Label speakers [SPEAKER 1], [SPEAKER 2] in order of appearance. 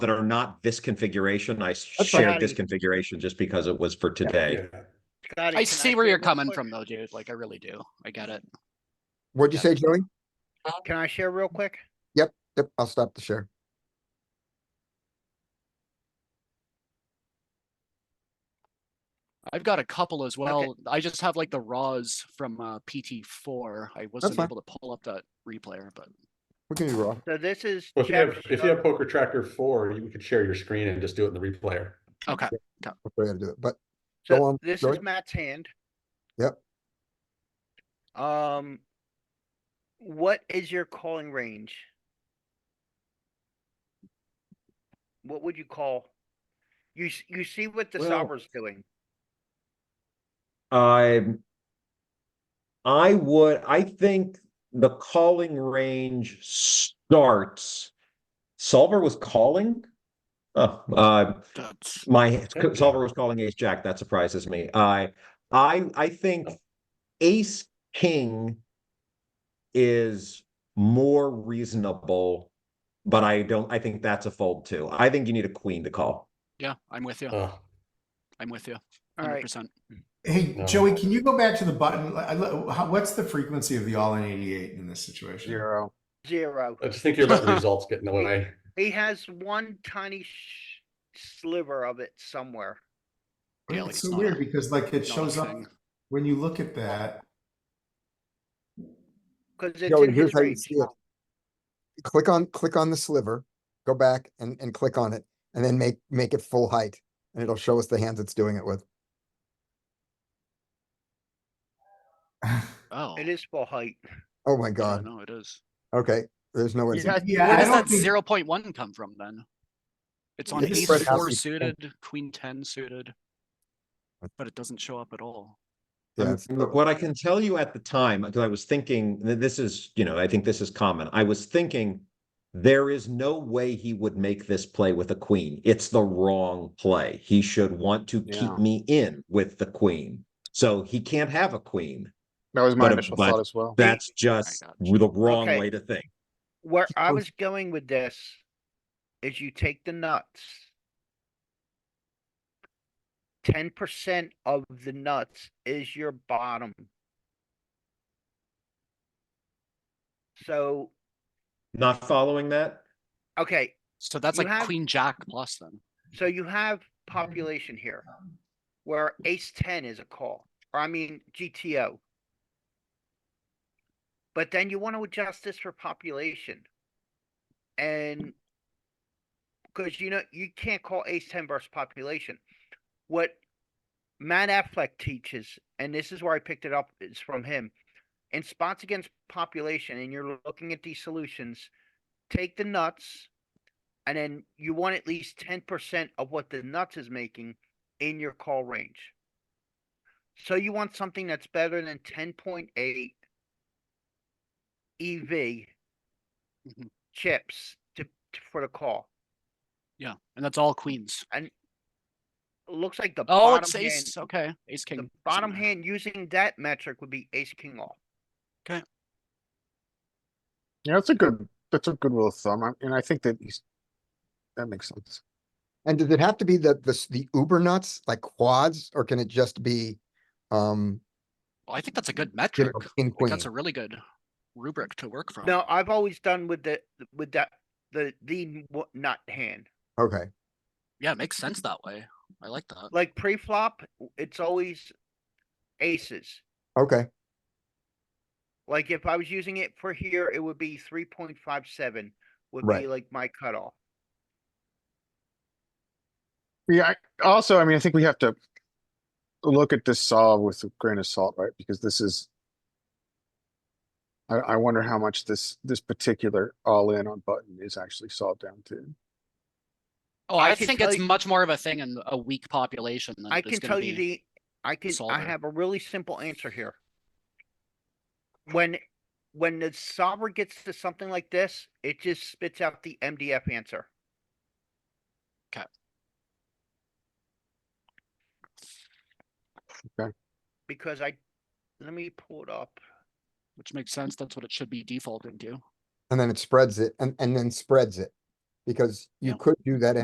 [SPEAKER 1] that are not this configuration. I
[SPEAKER 2] fine.
[SPEAKER 1] shared this configuration just because it was for today.
[SPEAKER 3] Yeah.
[SPEAKER 2] Scotty,
[SPEAKER 4] I
[SPEAKER 2] can
[SPEAKER 4] see where
[SPEAKER 2] share
[SPEAKER 4] you're
[SPEAKER 2] real
[SPEAKER 4] coming
[SPEAKER 2] quick?
[SPEAKER 4] from though, dude. Like I really do. I get it.
[SPEAKER 5] What'd you say, Joey?
[SPEAKER 2] Can I share real quick?
[SPEAKER 5] Yep, I'll stop the share.
[SPEAKER 4] I've got a couple as well. I just have like the raws from uh, PT four. I wasn't
[SPEAKER 5] fine.
[SPEAKER 4] able to pull up that replayer, but
[SPEAKER 5] We can be raw.
[SPEAKER 2] So this is.
[SPEAKER 3] Well, if you have,
[SPEAKER 2] chapter
[SPEAKER 3] if you have
[SPEAKER 2] 11.
[SPEAKER 3] poker tracker four, you could share your screen and just do it in the replayer.
[SPEAKER 4] okay.
[SPEAKER 5] That's the way to do it, but
[SPEAKER 2] So
[SPEAKER 5] Go on,
[SPEAKER 2] This
[SPEAKER 5] Joey.
[SPEAKER 2] is Matt's hand.
[SPEAKER 5] Yep.
[SPEAKER 2] Um, what is your calling range? What would you call? You, s- you see what the
[SPEAKER 3] Well-
[SPEAKER 2] solver's doing.
[SPEAKER 1] I Um, I would, I think the calling range starts. Solver was calling? Oh, uh,
[SPEAKER 4] That's
[SPEAKER 1] my solver was calling ace jack. That surprises me. I, I, I think ace king is more reasonable, but I don't, I think that's a fold too. I think you need a queen to call.
[SPEAKER 4] yeah. I'm with you.
[SPEAKER 3] Oh,
[SPEAKER 4] I'm with you. Hundred
[SPEAKER 2] Alright,
[SPEAKER 4] percent.
[SPEAKER 3] No.
[SPEAKER 6] Hey, Joey, can you go back to the button? I- I- how- What's the frequency of the all in 88 in this situation?
[SPEAKER 7] Zero.
[SPEAKER 2] zero.
[SPEAKER 3] I just think you're letting the results get in the way.
[SPEAKER 2] He has one tiny sh- sliver of it somewhere.
[SPEAKER 6] But
[SPEAKER 4] Yeah, like
[SPEAKER 6] It's
[SPEAKER 4] it's
[SPEAKER 6] so
[SPEAKER 4] not
[SPEAKER 6] weird
[SPEAKER 4] a-
[SPEAKER 6] because like it shows up when you look at that.
[SPEAKER 2] Cause it's
[SPEAKER 5] Joey,
[SPEAKER 2] in his
[SPEAKER 5] here's how you
[SPEAKER 2] range.
[SPEAKER 5] see it. Click on, click on the sliver, go back and, and click on it, and then make, make it full height. And it'll show us the hands it's doing it with.
[SPEAKER 4] Oh,
[SPEAKER 2] It is full height.
[SPEAKER 5] Oh my
[SPEAKER 4] yeah,
[SPEAKER 5] god,
[SPEAKER 4] No, it is.
[SPEAKER 5] okay, there's no way. to-
[SPEAKER 6] Yeah,
[SPEAKER 4] Where
[SPEAKER 6] I
[SPEAKER 4] does
[SPEAKER 6] don't
[SPEAKER 4] that
[SPEAKER 6] think-
[SPEAKER 4] zero point one come from then? It's on
[SPEAKER 5] It's
[SPEAKER 4] ace
[SPEAKER 5] spread out
[SPEAKER 4] four
[SPEAKER 5] the-
[SPEAKER 4] suited, queen ten suited. But it doesn't show up at all.
[SPEAKER 5] yeah,
[SPEAKER 1] Um,
[SPEAKER 5] it's-
[SPEAKER 1] Look, what I can tell you at the time, because I was thinking, th- this is, you know, I think this is common. I was thinking there is no way he would make this play with a queen. It's the wrong play. He should want to keep
[SPEAKER 7] Yeah.
[SPEAKER 1] me in with the queen. So he can't have a queen.
[SPEAKER 7] That was my
[SPEAKER 1] But-
[SPEAKER 7] initial
[SPEAKER 1] but
[SPEAKER 7] thought as well.
[SPEAKER 1] That's just
[SPEAKER 4] got you.
[SPEAKER 1] the wrong
[SPEAKER 2] Okay.
[SPEAKER 1] way to think.
[SPEAKER 2] Where I
[SPEAKER 5] Oh.
[SPEAKER 2] was going with this is you take the nuts. Ten percent of the nuts is your bottom. So,
[SPEAKER 1] Not following that?
[SPEAKER 2] okay,
[SPEAKER 4] So that's
[SPEAKER 2] You
[SPEAKER 4] like
[SPEAKER 2] have-
[SPEAKER 4] queen jack plus then.
[SPEAKER 2] so you have population here. Where ace ten is a call, or I mean GTO. But then you want to adjust this for population. And because you know you can't call ace ten versus population. What Matt Affleck teaches, and this is where I picked it up, is from him. In spots against population, and you're looking at these solutions, take the nuts, and then you want at least ten percent of what the nuts is making in your call range. So you want something that's better than ten point eight EV
[SPEAKER 4] Mhm.
[SPEAKER 2] chips to, to for the call.
[SPEAKER 4] Yeah, and that's all queens.
[SPEAKER 2] It looks like the
[SPEAKER 4] Oh,
[SPEAKER 2] bottom
[SPEAKER 4] it's
[SPEAKER 2] hand,
[SPEAKER 4] ace. Okay, ace king.
[SPEAKER 2] the
[SPEAKER 4] isn't
[SPEAKER 2] bottom
[SPEAKER 4] there.
[SPEAKER 2] hand using that metric would be ace king off.
[SPEAKER 7] Yeah, that's a good, that's a good rule of thumb. I- And I think that he's, that makes sense.
[SPEAKER 5] And does it have to be the, the, s- the uber nuts, like quads, or can it just be, um,
[SPEAKER 4] Well, I think that's a good
[SPEAKER 5] you
[SPEAKER 4] metric.
[SPEAKER 5] know, king,
[SPEAKER 4] Like,
[SPEAKER 5] queen?
[SPEAKER 4] that's a really good rubric to work from.
[SPEAKER 2] Now I've always done with the with that the the n- w- nut hand.
[SPEAKER 5] Okay,
[SPEAKER 4] Yeah, it makes sense that way. I like that.
[SPEAKER 2] Like pre-flop, it's always aces.
[SPEAKER 5] okay,
[SPEAKER 2] Like if I was using it for here, it would be three point five seven would
[SPEAKER 5] Right.
[SPEAKER 2] be like my cutoff.
[SPEAKER 7] Yeah, I- also, I mean, I think we have to look at this solve with a grain of salt, right? Because this is, I, I wonder how much this, this particular all in on button is actually solved down to.
[SPEAKER 4] Oh,
[SPEAKER 2] I
[SPEAKER 4] I,
[SPEAKER 2] can
[SPEAKER 4] think
[SPEAKER 2] tell
[SPEAKER 4] it's
[SPEAKER 2] you-
[SPEAKER 4] much more of a thing in a weak population than
[SPEAKER 2] I
[SPEAKER 4] it is
[SPEAKER 2] can
[SPEAKER 4] gonna
[SPEAKER 2] tell you
[SPEAKER 4] be-
[SPEAKER 2] the, I can, I
[SPEAKER 4] solver.
[SPEAKER 2] have a really simple answer here. When, when the solver gets to something like this, it just spits out the MDF answer.
[SPEAKER 4] 'Kay.
[SPEAKER 7] Okay.
[SPEAKER 2] Because I, let me pull it up.
[SPEAKER 4] which makes sense. That's what it should be defaulting to.
[SPEAKER 5] and then it spreads it, and, and then spreads it. Because you
[SPEAKER 4] Yeah.
[SPEAKER 5] could do that